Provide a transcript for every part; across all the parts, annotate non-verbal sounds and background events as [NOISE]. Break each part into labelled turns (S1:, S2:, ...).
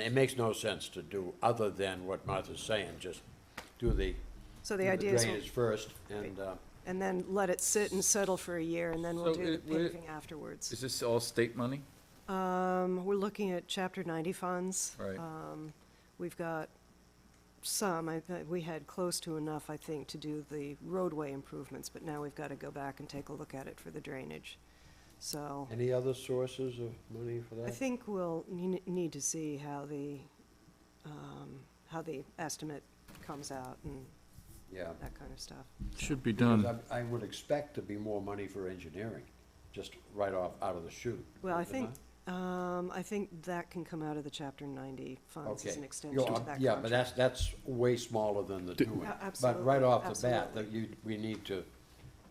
S1: It makes no sense to do other than what Martha's saying, just do the
S2: So the idea is, we'll-
S1: drainage first and, uh,
S2: and then let it sit and settle for a year, and then we'll
S3: So
S2: do the
S3: it- would it-
S2: paving afterwards.
S3: Is this all state money?
S2: Um, We're looking at Chapter 90 funds.
S3: Right.
S2: Um, We've got some, I, thi- we had close to enough, I think, to do the roadway improvements, but now we've got to go back and take a look at it for the drainage. So
S1: any other sources of money for
S2: I
S1: that?
S2: think we'll ne- need to see how the, um, how the estimate comes out and
S1: Yeah.
S2: that kind of stuff.
S3: Should be
S1: Because I I would expect to be more money for engineering, just right off, out of the chute.
S2: Well, I
S1: Am
S2: think, um, I think that can come out of the chapter ninety funds as
S1: Okay.
S2: an extension
S1: You're-
S2: to that contract.
S1: Yeah, but that's, that's way smaller than the doing.
S2: A-
S1: But right
S2: absolutely,
S1: off the bat, that you, we need to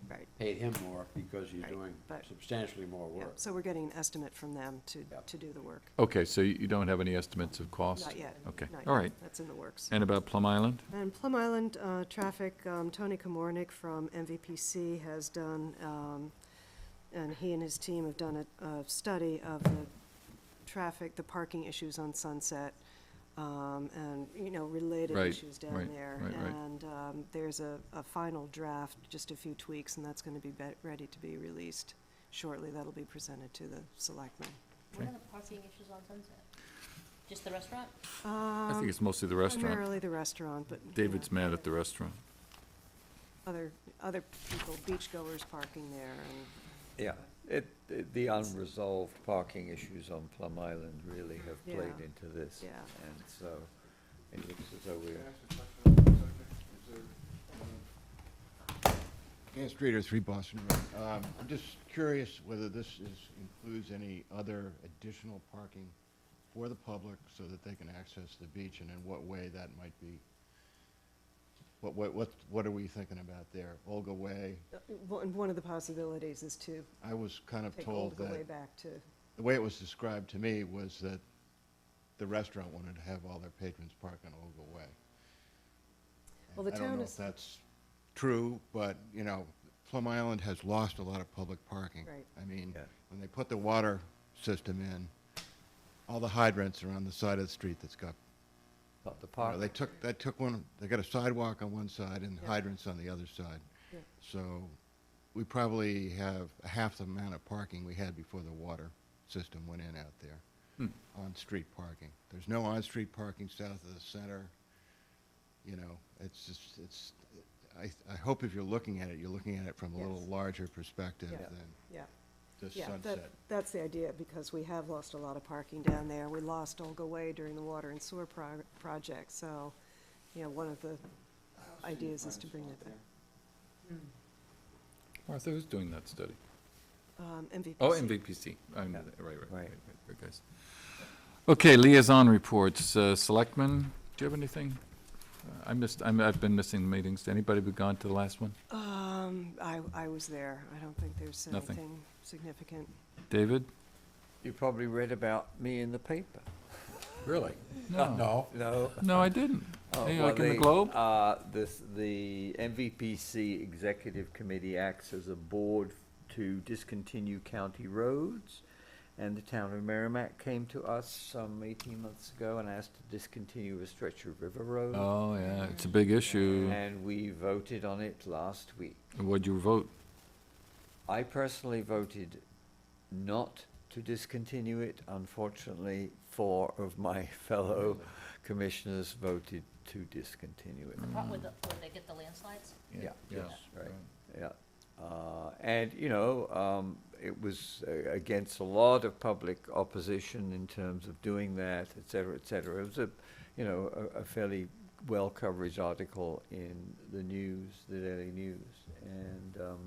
S2: Right,
S1: pay him more because you're
S2: Right,
S1: doing
S2: but-
S1: substantially more
S2: yeah,
S1: work.
S2: so we're getting an estimate from them to,
S1: Yep.
S2: to do the work.
S4: Okay, so you you don't have any estimates of cost?
S2: Not yet.
S4: Okay,
S2: not
S4: all
S2: yet.
S4: right.
S2: That's in the works.
S4: And about Plum Island?
S2: And Plum Island uh, Traffic, um, Tony Komornick from MVPC has done, um, and he and his team have done a, a study of the traffic, the parking issues on Sunset, um, and, you know, related
S4: Right,
S2: issues down
S4: right,
S2: there.
S4: right, right.
S2: And um, there's a, a final draft, just a few tweaks, and that's going to be be- ready to be released shortly. That'll be presented to the selectmen.
S4: Okay.
S5: What are the parking issues on Sunset? Just the restaurant?
S4: I think
S6: Um,
S4: it's mostly the restaurant.
S2: Um, Primarily the restaurant, but. you know.
S4: David's mad at the restaurant.
S2: other, other people, beachgoers parking there and,
S6: Yeah, it, it- the unresolved parking issues on Plum Island really have played
S2: Yeah.
S6: into this.
S2: Yeah.
S6: And so it looks as though we're,
S7: Dan Streeter, 3 Boston Road. Um, I'm just curious whether this is, includes any other additional parking for the public so that they can access the beach, and in what way that might be? What, what, what what are we thinking about there? Olga Way?
S2: one, and one of the possibilities is to
S7: I was kind of
S2: take
S7: told
S2: Olga
S7: that...
S2: way back to,
S7: the way it was described to me was that the restaurant wanted to have all their patrons park on Ogle Way.
S2: Well, the
S7: I don't
S2: town
S7: know
S2: is-
S7: if that's true, but, you know, Plum Island has lost a lot of public parking.
S2: Right.
S7: I mean,
S6: Yeah.
S7: when they put the water system in, all the hydrants are on the side of the street that's got,
S6: the
S7: you know, they
S6: park,
S7: took, they took one, they got a sidewalk on one side and hydrants on the other side.
S2: Yeah.
S7: So we probably have half the amount of parking we had before the water system went in out there. On-street parking. There's no on-street parking south of the center. You know, it's just, it's, I, I hope if you're looking at it, you're looking at it from a little
S2: Yes.
S7: larger perspective
S2: Yeah.
S7: than
S2: yeah.
S7: just
S2: Yeah, that-
S7: sunset.
S2: That's the idea, because we have lost a lot of parking down there. We lost Olga Way during the water and sewer prog- project, so, you know, one of the ideas is to bring it back.
S4: Martha, who's doing that study?
S2: Um, MVPC.
S4: Oh, MVPC. I'm, right, right, right,
S6: Right.
S4: right, right, guys. Okay, liaison reports. Uh, Selectmen, do you have anything? Uh, I missed, I'm, I've been missing meetings. Anybody be gone to the last one?
S2: Um, I, I was there. I don't think there's
S4: Nothing.
S2: anything significant.
S6: [LAUGHS]
S4: David?
S6: you probably read about me in the paper.
S1: Really?
S4: No.
S1: No.
S6: No?
S4: No, I didn't.
S6: Oh,
S4: Hey,
S6: well,
S4: Like in the
S6: they,
S4: Globe?
S6: Uh, this, the MVPC Executive Committee acts as a board to discontinue county roads. And the town of Merrimack came to us some eighteen months ago and asked to discontinue a stretch of river road.
S4: Oh, yeah, it's a big issue.
S6: And we voted on it last week.
S4: What'd you vote?
S6: I personally voted not to discontinue it. Unfortunately, four of my [LAUGHS] fellow commissioners voted to discontinue it.
S5: What would, the- would they get the landslides?
S6: Yeah.
S4: Yes.
S6: Right, yeah. Uh, And, you know, um, it was uh, against a lot of public opposition in terms of doing that, et cetera, et cetera. It was a, you know, a- a fairly well-coverage article in the news, the Daily News. And um,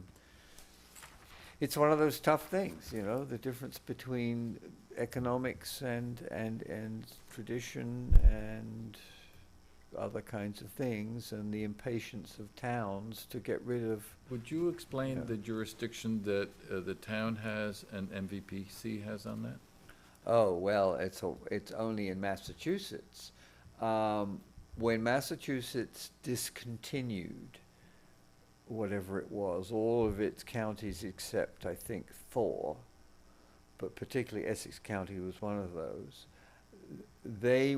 S6: it's one of those tough things, you know, the difference between economics and, and, and tradition and other kinds of things and the impatience of towns to get rid of
S4: Would you
S6: Yeah.
S4: explain the jurisdiction that uh, the town has and MVPC has on that?
S6: Oh, well, it's, a- it's only in Massachusetts. Um, when Massachusetts discontinued whatever it was, all of its counties except, I think, four, but particularly Essex County was one of those, they